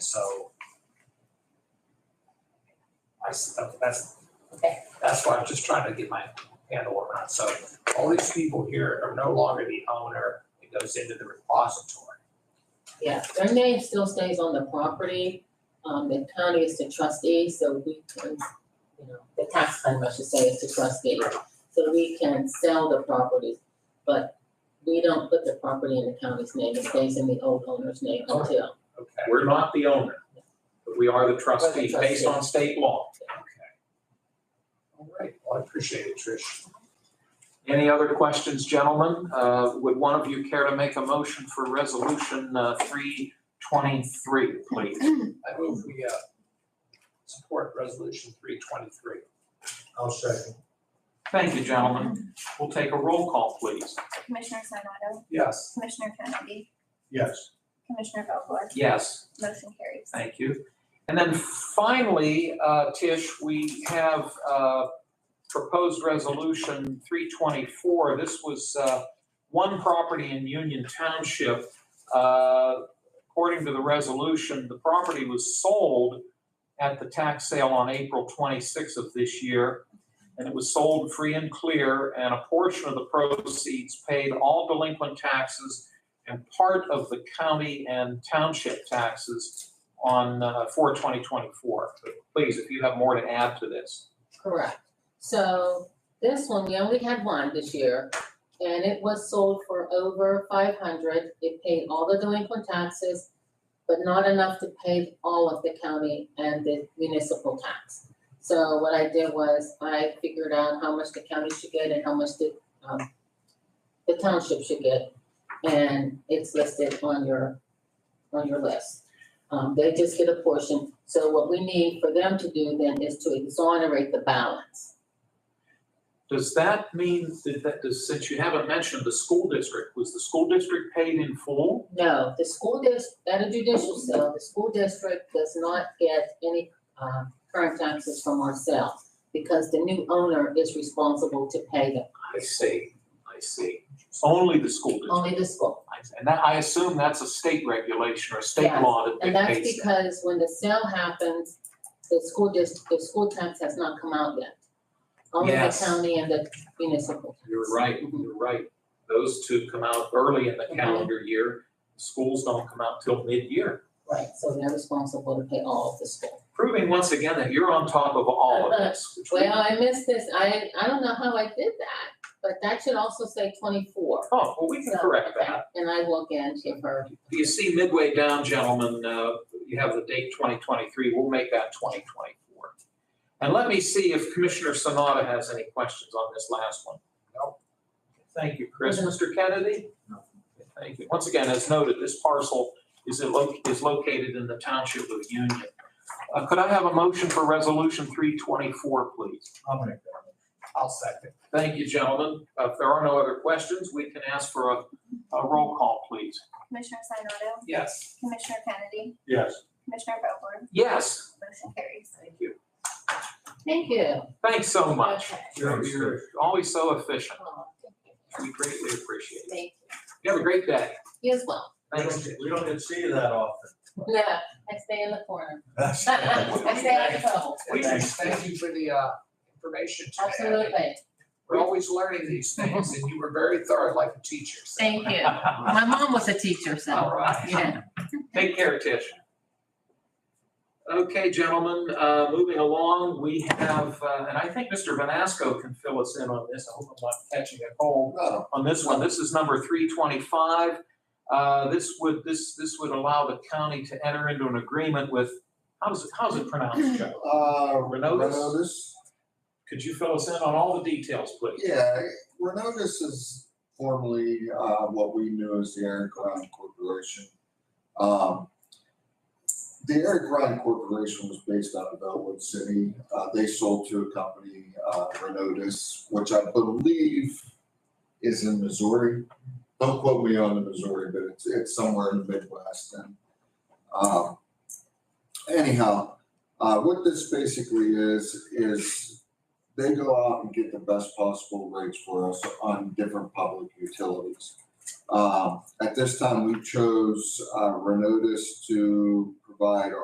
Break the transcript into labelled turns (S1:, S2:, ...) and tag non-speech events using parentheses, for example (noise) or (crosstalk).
S1: s- that- that's,
S2: Okay.
S1: that's what I'm just trying to get my handle around. So all these people here are no longer the owner. It goes into the repository.
S2: Yeah, their name still stays on the property. Um, the county is the trustee, so we can, you know, the tax claim, I should say, is the trustee. So we can sell the property, but we don't put the property in the county's name. It stays in the old owner's name until.
S1: Okay.
S3: We're not the owner, but we are the trustee based
S2: trustee.
S3: on state law.
S1: All right. Well, I appreciate it, Trish.
S3: Any other questions, gentlemen? Uh, Would one of you care to make a motion for Resolution uh, 323, please?
S1: I move we, uh, support resolution three twenty-three.
S4: I'll second.
S3: Thank you, gentlemen. We'll take a roll call, please.
S5: Commissioner Sinata,
S1: Yes.
S5: Commissioner Kennedy,
S4: Yes.
S5: Commissioner Vogler,
S3: Yes.
S5: motion carries.
S3: Thank you. And then finally, uh, Tish, we have uh, proposed resolution 324. This was uh, one property in Union Township. Uh, According to the resolution, the property was sold at the tax sale on April 26th of this year. And it was sold free and clear, and a portion of the proceeds paid all delinquent taxes and part of the county and township taxes on uh, for 2024. But Please, if you have more to add to this.
S2: Correct. So this one, we only had one this year, and it was sold for over five hundred. It paid all the delinquent taxes, but not enough to pay all of the county and the municipal tax. So what I did was I figured out how much the county should get and how much the, um, the township should get. And it's listed on your, on your list. Um, they just get a portion, so what we need for them to do then is to exonerate the balance.
S3: Does that mean that, that, does- since you haven't mentioned the school district, was the school district paid in full?
S2: No, the school dis, at a judicial sale, the school district does not get any, um, current taxes from ourselves because the new owner is responsible to pay them,
S3: I see, I see. Only the school district.
S2: only the school.
S3: And that, I assume that's a state regulation or state
S2: Yes,
S3: law that
S2: And that's
S3: dictates that.
S2: because when the sale happens, the school district, the school tax has not come out yet. Only the
S3: Yes.
S2: county and the municipal. tax.
S3: You're right,
S2: Mhm.
S3: you're right. Those two come out early in the
S2: Mhm.
S3: calendar year. Schools don't come out till mid-year,
S2: Right, so they're responsible to pay all of the school.
S3: proving once again that you're on top of all of this, which we
S2: Uh, Well, I missed this, I, I don't know how I did that, but that should also say twenty-four.
S3: Oh, well, we can
S2: So,
S3: correct
S2: okay,
S3: that.
S2: And I will again give her,
S3: You see midway down, gentlemen, uh, you have the date 2023, we'll make that 2024. And let me see if Commissioner Sanada has any questions on this last one. No. Thank you, Chris. Mr. Kennedy? Thank you. Once again, as noted, this parcel is in lo- is located in the township of Union. Uh, Could I have a motion for Resolution 324, please?
S4: I'll make that.
S1: I'll second.
S3: Thank you, gentlemen. Uh, If there are no other questions, we can ask for a a roll call, please.
S5: Commissioner Sinata,
S1: Yes.
S5: Commissioner Kennedy,
S4: Yes.
S5: Commissioner Vogler,
S3: Yes.
S5: motion carries.
S3: Thank you.
S2: thank you.
S3: Thanks so much.
S2: Okay.
S3: You're,
S4: Thanks,
S3: you're always so efficient.
S2: Oh, thank you.
S3: We greatly appreciate it.
S2: Thank
S3: You have a great day.
S2: you. You as well.
S4: We
S3: Thanks.
S4: don't, we don't get to see you that often.
S2: No, I stay in the corner. (laughs)
S4: (laughs) That's.
S2: I stay out of trouble,
S1: We
S4: Thanks.
S1: thank you for the, uh, information today.
S2: absolutely.
S1: We're always learning these things and you were very thorough like a teacher. so-
S2: Thank you. My mom was a teacher,
S3: All
S2: so,
S3: right.
S2: yeah.
S3: Take care, Tish. Okay, gentlemen, uh, moving along, we have, uh, and I think Mr. Vanasco can fill us in on this. I hope I'm not catching a cold.
S1: Well,
S3: on this one. This is number three twenty-five. Uh, this would, this, this would allow the county to enter into an agreement with, how's it, how's it pronounced, Joe?
S6: Uh,
S3: Renodus?
S6: Renodus?
S3: Could you fill us in on all the details, please?
S6: Yeah, Renodus is formerly, uh, what we knew as the Aaron Grant Corporation. Um, the Aaron Grant Corporation was based out of Elwood City. Uh, they sold to a company, uh, Renodus, which I believe is in Missouri. Don't quote me on the Missouri, but it's, it's somewhere in the Midwest and, um, anyhow, uh, what this basically is, is they go out and get the best possible rates for us on different public utilities. Um, at this time, we chose, uh, Renodus to provide